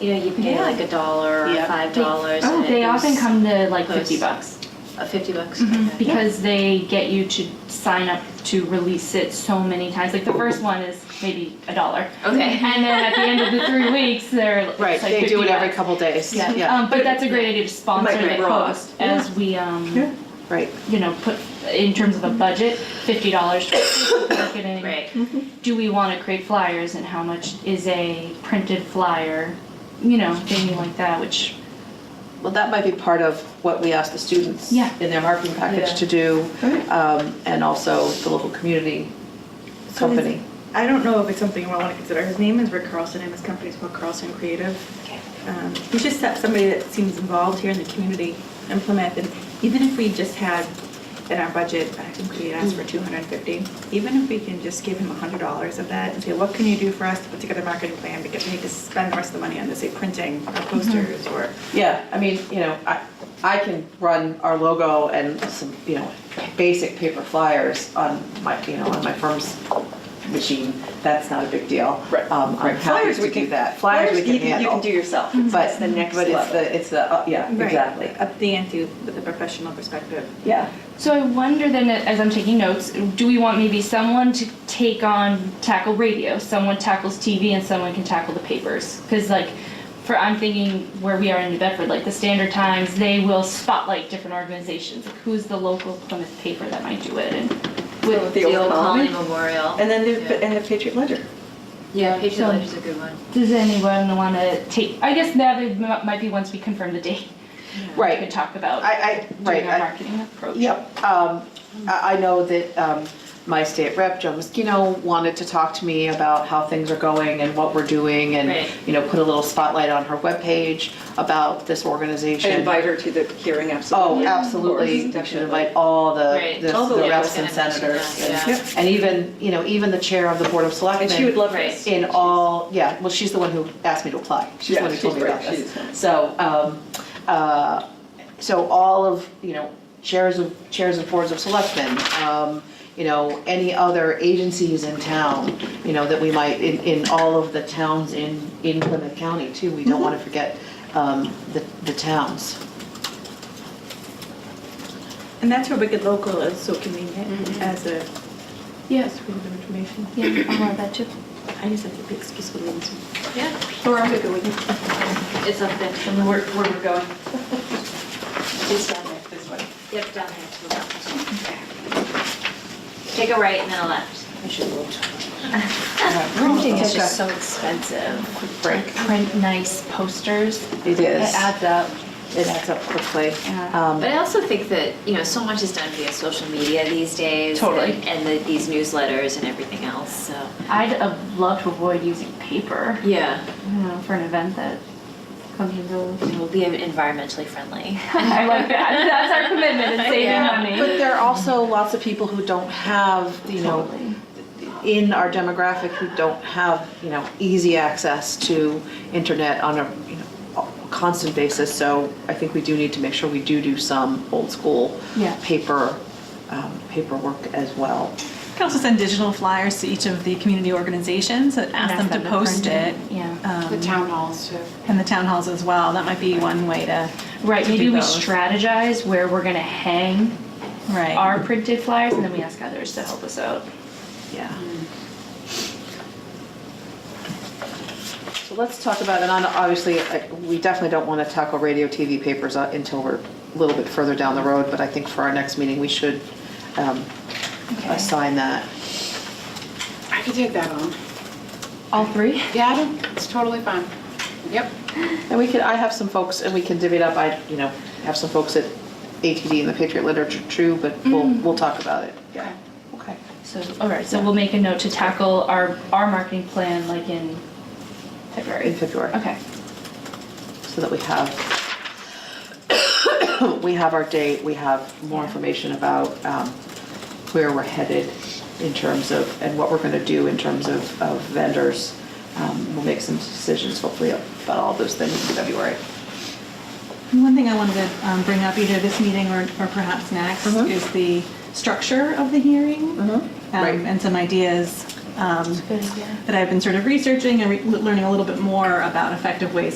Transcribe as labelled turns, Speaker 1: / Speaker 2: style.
Speaker 1: You know, you pay
Speaker 2: Yeah.
Speaker 1: like a dollar or
Speaker 2: Yeah.
Speaker 1: five dollars.
Speaker 3: Oh,
Speaker 1: and
Speaker 3: they
Speaker 1: it
Speaker 3: often
Speaker 1: was-
Speaker 3: come to like
Speaker 1: Post.
Speaker 3: fifty bucks
Speaker 1: Uh, Fifty bucks. Okay.
Speaker 3: because they get you to sign up to release it so many times. Like the first one is maybe a dollar.
Speaker 1: Okay.
Speaker 3: And then at the end of the three weeks, they're it's
Speaker 2: Right,
Speaker 3: like
Speaker 2: they
Speaker 3: 50
Speaker 2: do it every
Speaker 3: bucks.
Speaker 2: couple days.
Speaker 3: Yeah.
Speaker 2: Yeah,
Speaker 3: Um, but that's a great idea to sponsor
Speaker 2: Might be
Speaker 3: the
Speaker 2: raw.
Speaker 3: post as we um,
Speaker 2: Yeah. right.
Speaker 3: you know put in terms of a budget fifty dollars for marketing.
Speaker 1: Right.
Speaker 3: do we want to create flyers and how much is a printed flyer you know thingy like that which
Speaker 2: Well, that might be part of what we ask the students
Speaker 3: Yeah.
Speaker 2: in their marketing
Speaker 4: Yeah.
Speaker 2: package to do,
Speaker 4: Right.
Speaker 2: um, and also the local community
Speaker 4: So is-
Speaker 2: company.
Speaker 4: I don't know if it's something you want to consider. His name is Rick Carlson, and his company is called Carlson Creative.
Speaker 1: Okay.
Speaker 4: Um, We should set somebody that seems involved here in the community in Plymouth, and even if we just had in our budget, I think we asked for
Speaker 1: Mm.
Speaker 4: two hundred and fifty, even if we can just give him hundred dollars of that and say, what can you do for us to put together a marketing plan, because we need to spend the rest of the money on, this, say, printing or
Speaker 1: Mm-hmm.
Speaker 4: posters or.
Speaker 2: Yeah, I mean, you know, I, I can run our logo and some, you know, basic paper flyers on my, you know, on my firm's machine. That's not a big deal.
Speaker 5: Right.
Speaker 2: Um, I'm happy
Speaker 5: Flyers, we
Speaker 2: to do
Speaker 5: can,
Speaker 2: that. Flyers we
Speaker 5: you
Speaker 2: can handle.
Speaker 5: You can do yourself. It's
Speaker 2: But,
Speaker 5: the next
Speaker 2: but it's
Speaker 5: level.
Speaker 2: the, it's the, uh, yeah, exactly.
Speaker 4: Up the ante with a professional perspective.
Speaker 2: Yeah.
Speaker 3: so i wonder then as i'm taking notes do we want maybe someone to take on tackle radio someone tackles tv and someone can tackle the papers because like for i'm thinking where we are in new bedford like the standard times they will spotlight different organizations like who's the local plymouth paper that might do it and
Speaker 5: With
Speaker 1: The old Colony Memorial.
Speaker 5: And then
Speaker 1: yeah.
Speaker 5: the, and the Patriot Ledger.
Speaker 1: yeah, Patriot
Speaker 3: So-
Speaker 1: Ledger's a good one.
Speaker 3: does anyone want to take i guess that it m- might be once we confirm the date we
Speaker 2: Right.
Speaker 3: could talk about
Speaker 2: I, I, right.
Speaker 3: doing our
Speaker 2: I-
Speaker 3: marketing approach.
Speaker 2: Yep, um, I, I know that, um, my state rep, Joe Moschino, wanted to talk to me about how things are going and what we're doing
Speaker 1: Right.
Speaker 2: and, you know, put a little spotlight on her webpage about this organization.
Speaker 5: And invite her to the hearing,
Speaker 2: Oh,
Speaker 5: absolutely.
Speaker 2: absolutely, we should invite all the,
Speaker 1: Right.
Speaker 2: the
Speaker 1: All the
Speaker 2: the
Speaker 1: way.
Speaker 2: reps and
Speaker 1: Yeah, I was gonna
Speaker 2: senators.
Speaker 1: mention that,
Speaker 2: and- And even, you know, even the chair of the Board of Selectmen.
Speaker 5: And she would love
Speaker 1: Oh, Right.
Speaker 5: this.
Speaker 2: In all, yeah, well, she's the one who asked me to apply. She's the
Speaker 5: Yeah,
Speaker 2: one who told me
Speaker 5: she's
Speaker 2: about
Speaker 5: great.
Speaker 2: this.
Speaker 5: She's nice.
Speaker 2: So, um, uh, so all of, you know, chairs of, chairs of boards of selectmen, um, you know, any other agencies in town, you know, that we might, in, in all of the towns in, in Plymouth County too. We
Speaker 5: Mm-hmm.
Speaker 2: don't want to forget, um, the, the towns.
Speaker 4: And that's where Wicked Local is so convenient as a
Speaker 3: Yeah,
Speaker 4: source of information.
Speaker 3: Mm-hmm. yeah, I love that too.
Speaker 4: I just have to be excuse for losing.
Speaker 1: Yeah,
Speaker 5: Or I'm good with it.
Speaker 1: it's up there.
Speaker 5: Where, where we're going. It's down there, this way.
Speaker 1: Yep, down there to the left. Take a right and then a left.
Speaker 2: I should vote.
Speaker 3: Printing
Speaker 1: It's just so expensive.
Speaker 2: break.
Speaker 3: Print nice posters.
Speaker 2: It is.
Speaker 3: It adds up.
Speaker 2: It adds up quickly.
Speaker 3: Yeah.
Speaker 2: Um,
Speaker 1: But I also think that, you know, so much is done via social media these days.
Speaker 3: Totally.
Speaker 1: And, and the, these newsletters and everything else, so.
Speaker 3: I'd uh, love to avoid using paper,
Speaker 1: Yeah,
Speaker 3: you know, for an event that comes and goes.
Speaker 1: it will be environmentally friendly.
Speaker 3: I like that. That's our commitment in saving
Speaker 1: Yeah.
Speaker 2: But
Speaker 3: money.
Speaker 2: there are also lots of people who don't have, you know,
Speaker 3: Totally.
Speaker 2: in our demographic who don't have, you know, easy access to internet on a, you know, a constant basis. So I think we do need to make sure we do do some old school
Speaker 3: Yeah.
Speaker 2: paper, um, paperwork as well.
Speaker 6: You can also send digital flyers to each of the community organizations and ask them to post
Speaker 3: print
Speaker 6: it.
Speaker 3: Yeah.
Speaker 6: um,
Speaker 7: The town halls too.
Speaker 6: And the town halls as well. That might be one way to.
Speaker 3: Right,
Speaker 6: to do
Speaker 3: maybe we
Speaker 6: both.
Speaker 3: strategize where we're gonna hang
Speaker 6: Right.
Speaker 3: our printed flyers and then we ask others to help us out.
Speaker 2: Yeah. So let's talk about, and on- obviously, uh, we definitely don't want to tackle radio, TV, papers uh, until we're a little bit further down the road, but I think for our next meeting, we should um, assign that.
Speaker 7: I could take that on.
Speaker 3: All three?
Speaker 7: Yeah, I don't- it's totally fine. Yep.
Speaker 2: And we could, I have some folks, and we can divvy it up, I, you know, have some folks at ATD and the Patriot Literature, true, but we'll, we'll talk about it. Yeah, okay.
Speaker 3: So, all right, so we'll make a note to tackle our, our marketing plan like in February.
Speaker 2: In February.
Speaker 3: Okay.
Speaker 2: so that we have, we have our date, we have more information about um, where we're headed in terms of, and what we're going to do in terms of of vendors. Um, We'll make some decisions hopefully about all those things in February.
Speaker 6: One thing I wanted to um, bring up either this meeting or, or perhaps next
Speaker 3: Uh-huh.
Speaker 2: Mhm.
Speaker 6: is the structure of the hearing um,
Speaker 2: Right.
Speaker 6: and some ideas um,
Speaker 3: Good idea.
Speaker 6: that I've been sort of researching and re- learning a little bit more about effective ways